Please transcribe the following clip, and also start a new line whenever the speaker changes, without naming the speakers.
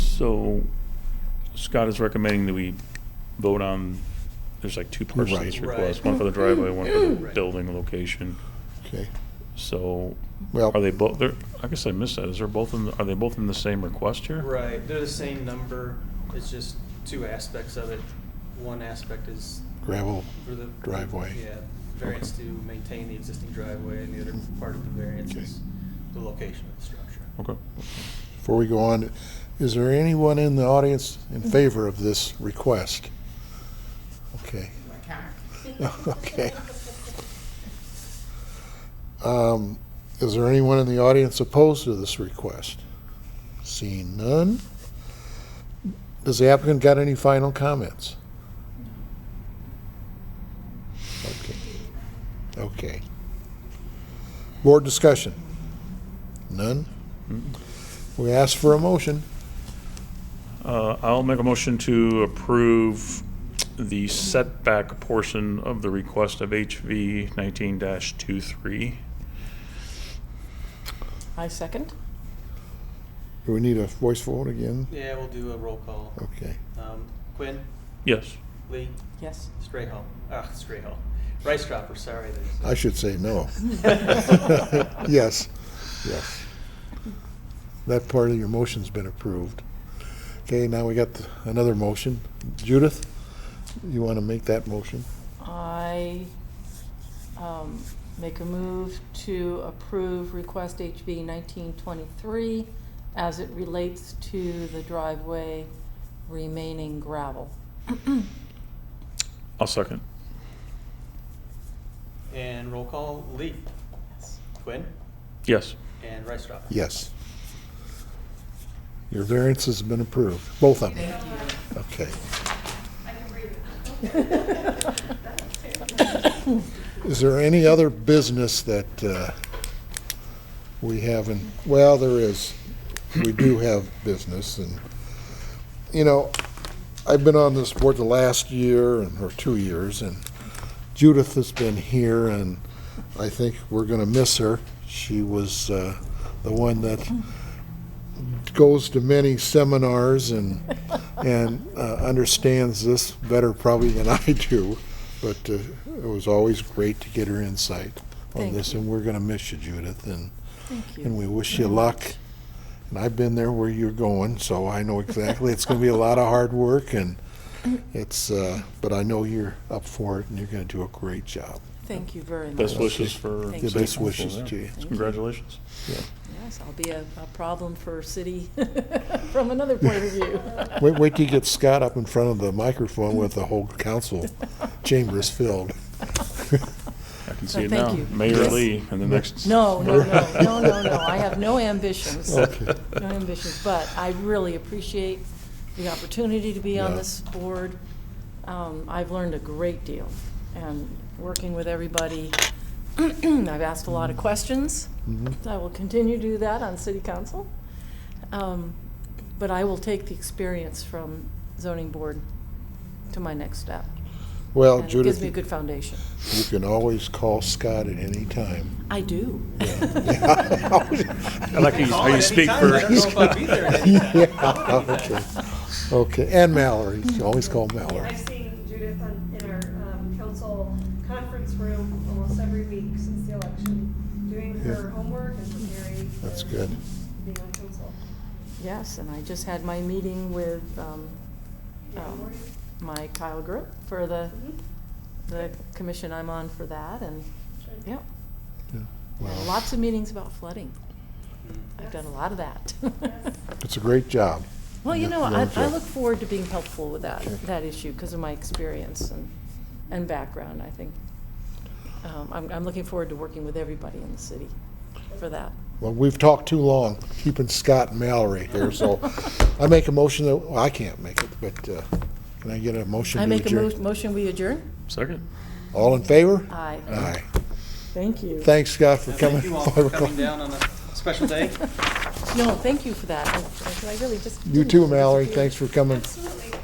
So Scott is recommending that we vote on, there's like two parts to this
Right. Mm-hmm.
request, one for the driveway, one for the
Right.
building location.
Okay,
So
well,
are they both, they're, I guess I missed that. Is there both in, the- are they both in the same request here?
Right, they're the same number, it's just two aspects of it. One aspect is
gravel
for the.
driveway.
Yeah, variance to maintain the existing driveway, and the other part of the variance
Okay.
is the location of the structure.
Okay.
Before we go on, is there anyone in the audience
Mm-hmm.
in favor of this request? Okay,
My car.
okay. Um, Is there anyone in the audience opposed to this request? Seeing none? Does the applicant got any final comments? Okay. Okay. Board discussion? None? We ask for a motion.
Uh, I'll make a motion to approve the setback portion of the request of HV nineteen 23
I second.
Do we need a voice vote again?
Yeah, we'll do a roll call.
Okay.
Um, Quinn,
Yes.
Lee,
Yes.
Strayhall, ah, Strayhall, Rice Dropper, sorry. uh, there's-
I should say no. Yes, yes. That part of your motion's been approved. Okay, now we got the- another motion. Judith, you want to make that motion?
I um, make a move to approve request HB 1923 as it relates to the driveway remaining gravel.
I'll second.
And roll call, Lee,
Yes.
Quinn,
Yes.
and Rice Dropper.
Yes. Your variance has been approved, both of them. Okay. Is there any other business that uh, we haven't, well, there is, we do have business, and, you know, I've been on this board the last year, and or two years, and Judith has been here, and I think we're going to miss her. She was uh, the one that goes to many seminars and, and uh, understands this better probably than I do, but uh, it was always great to get her insight on
Thank
this,
you.
and we're going to miss you, Judith, and
Thank
and we
you.
wish you luck. And I've been there where you're going, so I know exactly. It's going to be a lot of hard work, and it's. Uh, but I know you're up for it, and you're going to do a great job.
Thank you very much.
Best wishes for.
Thank
The
you.
best wishes to you.
Congratulations.
Yes, I'll be a a problem for city from another point of view.
Wait, wait till you get Scott up in front of the microphone with the whole council chamber is filled.
I can
No,
see it
thank
now.
you.
Mayor
Yes.
Lee and the next.
No, no, no, no, no, no. I have no ambitions.
Okay.
no ambitions, but I really appreciate the opportunity to be on
Yeah.
this board. Um, I've learned a great deal, and working with everybody, I've asked a lot of questions.
Mm-hmm.
I will continue to do that on city council. Um, But I will take the experience from zoning board to my next step.
Well,
and It gives
Judith,
me a
you
good foundation.
can always call Scott at any time.
I do.
I like how you- how you speak
Anytime, I don't know
for.
if I'll be there.
yeah, okay. okay, and Mallory. You can always call Mallory.
I've seen Judith on, in our, um, council conference room almost every week since the election, doing her
Yeah.
homework and preparing. for
That's good.
Being on council.
Yes, and I just had my meeting with um,
Yeah,
um,
Lori?
my Kyle group for the,
Mhm.
the commission I'm on for that, and,
Sure.
yeah.
Yeah. Wow.
Lots of meetings about flooding. I've
Mm-hmm.
Yes.
done a lot of that.
Yes.
It's a great job.
Well, you
Yeah,
know,
yeah,
I, I
yeah.
look forward to being helpful with that,
Okay.
that issue, because of my experience and, and background, I think. Um, I'm, I'm looking forward to working with everybody in the city for that.
Well, we've talked too long, keeping Scott and Mallory here, so I make a motion that, well, I can't make it, but uh, can I get a motion
I
to
make a mo-
adjourn?
motion, we adjourn?
Second.
All in favor?
Aye.
Aye.
Thank you.
Thanks, Scott, for
Now,
coming.
Thank you all
Five
for
o'clock.
coming down on a special day.
No, thank you for that. I I really just.
You
didn't
too,
think this
Mallory.
would be-
Thanks for coming.
Absolutely.